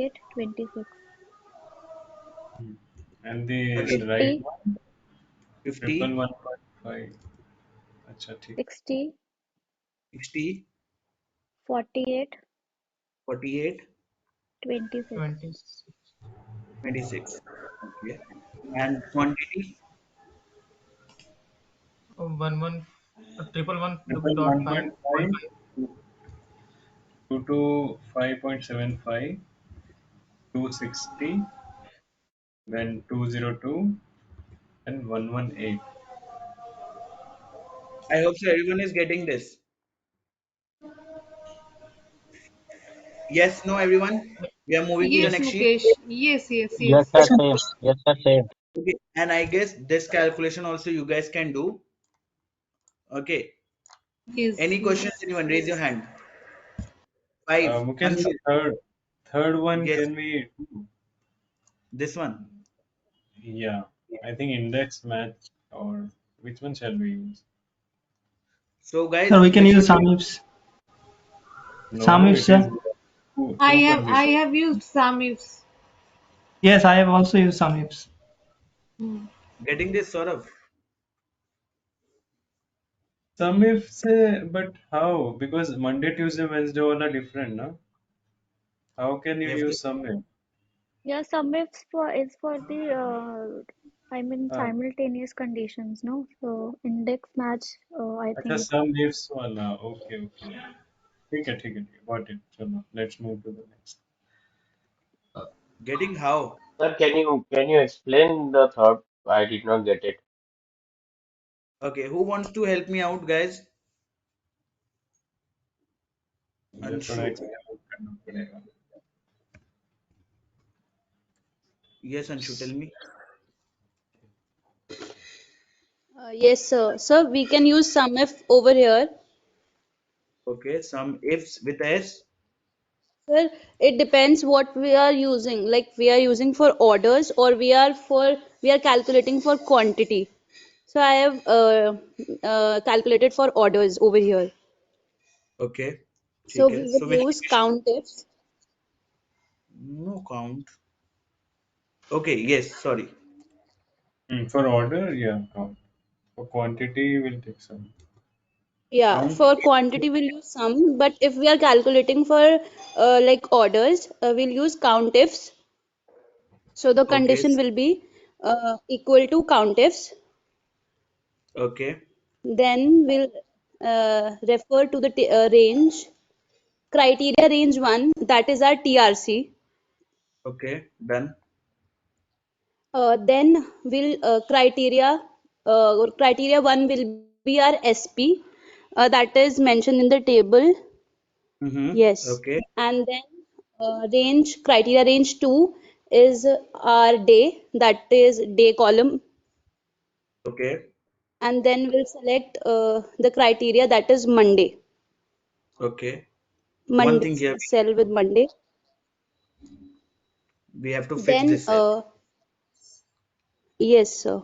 get 26. And the 50, right one, 50, triple one point five. अच्छा ठीक 60, 60, 48, 48, 26. 26 26. Okay. And quantity? Oh, one one uh, triple one Triple dot one five point point five five two to five point seven five two sixty then two zero two and one one eight. I hope so everyone is getting this. Yes, no, everyone? We are moving to the Yes, next sheet. Mukesh. Yes, yes, Yes, yes. sir, same. Yes, sir, same. Okay. And I guess this calculation also you guys can do. Okay. Yes, Any questions, yes. anyone? Raise your hand. Five. Uh, Mukesh, the Anshul, third third one Yes. can we do? This one. Yeah, I think index match or which one shall we use? So guys, Sir, we can this use is some ifs. No, Some it ifs, sir. is two, I two have I conditions. have used some ifs. Yes, I have also used some ifs. Hmm. getting this sort of. Some ifs, uh, but how? Because Monday, Tuesday, Wednesday all are different, no? How can you Yes. use some if? Yeah, sum ifs for is for the uh, I mean Uh, simultaneous conditions, no? So index match, uh, I अच्छा think. some ifs वाला okay okay ठीक है ठीक है ठीक है got it चलो let's move to the next Getting how? Sir, can you can you explain the third? I did not get it. Okay, who wants to help me out, guys? ये थोड़ा Anshu. explain करना पड़ेगा Yes, Anshu, tell me. Uh, yes, sir. Sir, we can use sum if over here. Okay, some ifs with s. Sir, it depends what we are using. Like we are using for orders or we are for we are calculating for quantity. So I have uh, uh, calculated for orders over here. Okay, So ठीक है. we So will which use count ifs. no count. Okay, yes, sorry. Hmm, for order yeah count for quantity will take some Yeah, count for quantity we'll use sum, but if we are calculating for uh, like orders, uh, we'll use count ifs. So the Okay, condition will be uh, equal to count ifs. okay, Then we'll uh, refer to the t uh, range. Criteria range 1, that is our TRC. okay, done. Uh, then we'll uh, criteria uh, or criteria 1 will be our SP, uh, that is mentioned in the table. Mm-hmm. Yes. Okay, And then uh, range criteria range 2 is our day, that is day column. okay, And then we'll select uh, the criteria that is Monday. okay. One Monday thing here cell with Monday. we have to fix Then, this cell. uh, yes, sir.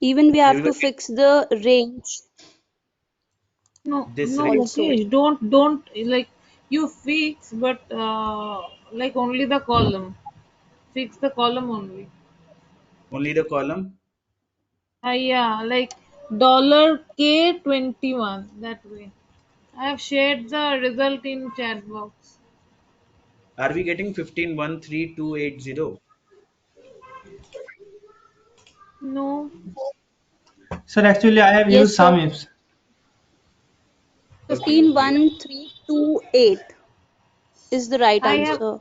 Even we have to Everybody, fix the range No, this no, range. also. Mukesh, don't don't like you fix, but uh, like only the column. Fix the column only. Only the column. Ah, yeah, like dollar K twenty one that way. I have shared the result in chat box. Are we getting fifteen one three two eight zero? No, Sir, actually, I have used Yes, some sir. ifs. Okay, 151328 is the right I have answer.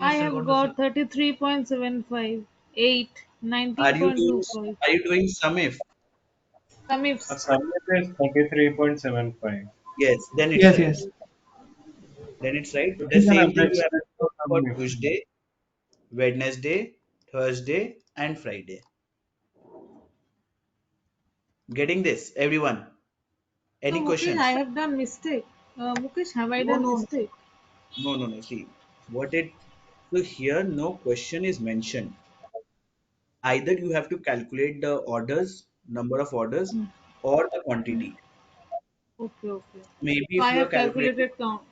I yes sir have got the got 33.75, 8, are you doing? 19.25. Are you doing sum if? Some ifs. sum is thirty three point seven five Yes, then it's Yes, right. yes. Then it's right. this The is an same thing average you have to do for sum if Tuesday, Wednesday, Thursday, and Friday. Getting this, everyone? No, Any Mukesh, I questions? have done mistake. Uh, Mukesh, have I No, done no, mistake? no, no, no. See, what it so here no question is mentioned. Either you have to calculate the orders, number of orders, Hmm, or the hmm. quantity. Okay, okay. Maybe So I if you are have calculating calculated count.